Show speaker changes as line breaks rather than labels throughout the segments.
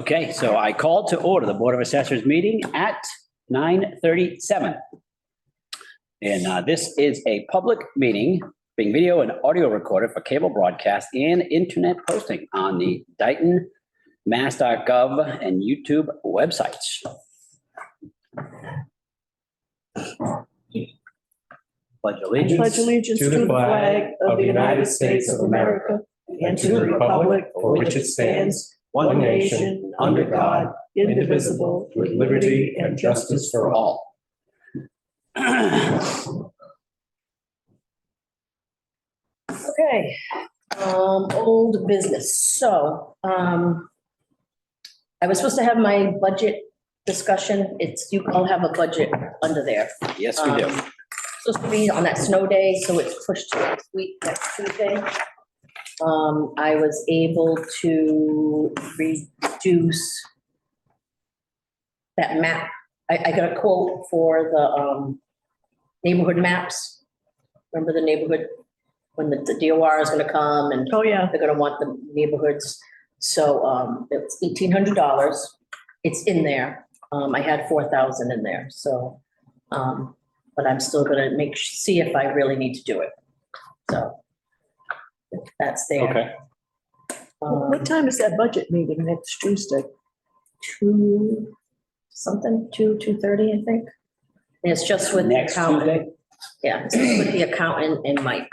Okay, so I call to order the Board of Assessors meeting at nine thirty-seven. And uh, this is a public meeting, being video and audio recorded for cable broadcast and internet posting on the Dayton mass.gov and YouTube websites. Pledge
I
allegiance.
pledge allegiance to the flag of the United States of America and to the republic for which it stands, one nation, under God, indivisible, with liberty and justice for all.
all.
Okay, um, old business, so, um, I was supposed to have my budget discussion, it's, you all have a budget under there.
Yes, we do.
Um, Supposed to be on that snow day, so it's pushed to next week, next Tuesday. Um, I was able to reduce that map. I, I got a quote for the, um, neighborhood maps. Remember the neighborhood, when the, the DOR is gonna come and
Oh, yeah.
they're gonna want the neighborhoods. So, um, it's eighteen hundred dollars. It's in there. Um, I had four thousand in there, so, um, but I'm still gonna make, see if I really need to do it. So that's there.
Okay.
Um,
What time is that budget meeting next Tuesday?
Two, something, two, two thirty, I think. And It's just with the
Next
accountant.
Tuesday?
Yeah, it's just with the accountant and Mike.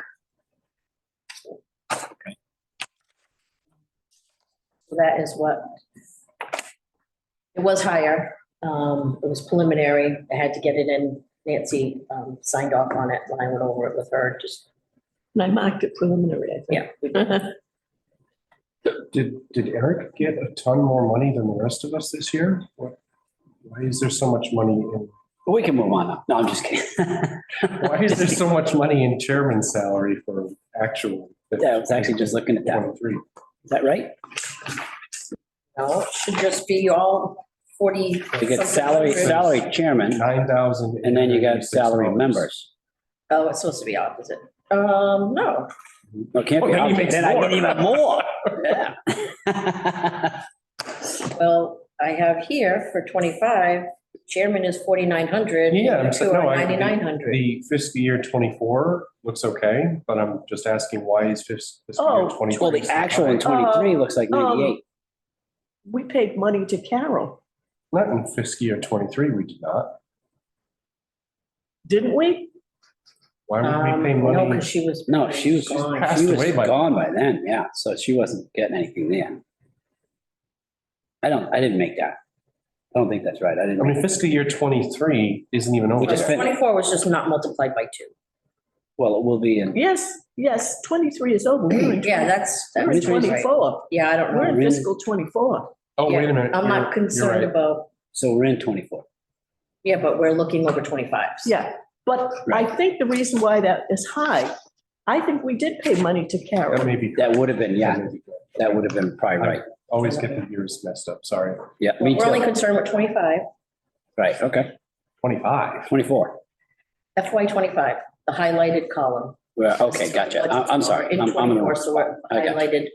So That is what. It was higher, um, it was preliminary, I had to get it in, Nancy, um, signed off on it, and I went over it with her, just,
And I marked it preliminary, I
yeah. we-
think.
Did, did Eric get a ton more money than the rest of us this year? What? Why is there so much money in,
But we can move on now. No, I'm just kidding.
why is there so much money in chairman's salary for actual?
Yeah, I was actually just looking at that.
Twenty-three.
Is that right?
No, it should just be all forty.
You get salary,
something hundred.
salary chairman,
Nine thousand.
and then you got salary members.
Oh, it's supposed to be opposite. Um, no,
No, it can't be.
Well, Oh, then you
opposite.
make
Then I get
more.
even more. Yeah.
Well, I have here for twenty-five, chairman is forty-nine hundred.
Yeah, I'm
Two
saying, no,
are
I,
ninety-nine
the-
hundred.
the fiscal year twenty-four looks okay, but I'm just asking why is fis- fiscal
Oh,
year
well,
twenty-four?
Well, the actual in twenty-three looks like
Um,
ninety-eight.
We paid money to Carol,
Not in fiscal year twenty-three, we did not.
didn't we?
Why would
Um,
we pay
no,
money?
because she was.
No, she was,
gone.
passed
she was
away by-
gone by then, yeah. So she wasn't getting anything there. I don't, I didn't make that. I don't think that's right. I didn't.
I
make
mean, fiscal year twenty-three isn't even over
We just
yet.
fin-
Twenty-four was just not multiplied by two.
Well, it will be in
Yes, yes, twenty-three is over. We're in
Yeah, that's,
we're in
that's right.
twenty-four.
Yeah, I don't
We're
know.
in fiscal twenty-four.
Oh, wait a minute.
I'm
you're-
not
you're
concerned
right.
about,
So we're in twenty-four.
yeah, but we're looking over twenty-five.
Yeah, but I think the reason why that is high, I think we did pay money to
That
Carol.
may be.
That would have been, yeah,
that may be correct.
that would have been probably right.
Always get the years messed up, sorry.
Yeah, me
We're only
too.
concerned with twenty-five,
Right, okay.
Twenty-five.
Twenty-four.
FY twenty-five, the highlighted column.
Well, okay, gotcha. I'm, I'm sorry.
In
I'm, I'm in the
twenty-four,
worst.
so we're
I got
highlighted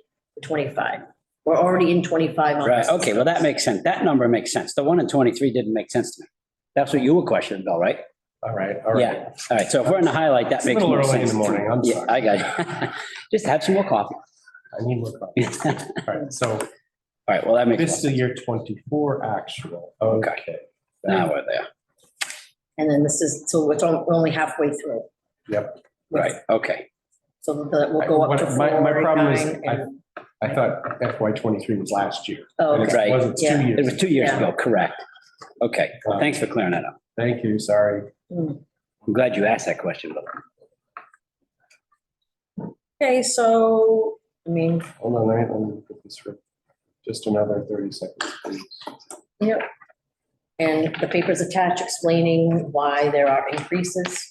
twenty-five. We're already in twenty-five on.
Right,
this.
okay, well, that makes sense. That number makes sense. The one in twenty-three didn't make sense to me. That's what you were questioning, Bill, right?
All right, all right.
Yeah, all right. So if we're in the highlight, that
It's a
makes
little
more
early in
sense.
the morning, I'm
Yeah,
sorry.
I got it. Just have some more coffee.
I need more coffee.
All
All right, so
right, well, that makes. more
fiscal
sense.
year twenty-four actual,
Okay.
okay.
Now we're there.
And then this is, so we're on- we're only halfway through.
Yep.
Right, okay.
So that will go up to
What- my- my problem is
49 and-
I thought FY twenty-three was last year.
Oh,
and
okay.
it
Right.
Wasn't
Yeah.
two
It
years.
was two years
Yeah.
ago, correct. Okay, thanks for clearing that up.
Thank you, sorry.
I'm glad you asked that question, Bill.
Okay, so, I mean,
Hold on, let me- let me put this for just another thirty seconds. please.
yep. And the paper's attached explaining why there are increases.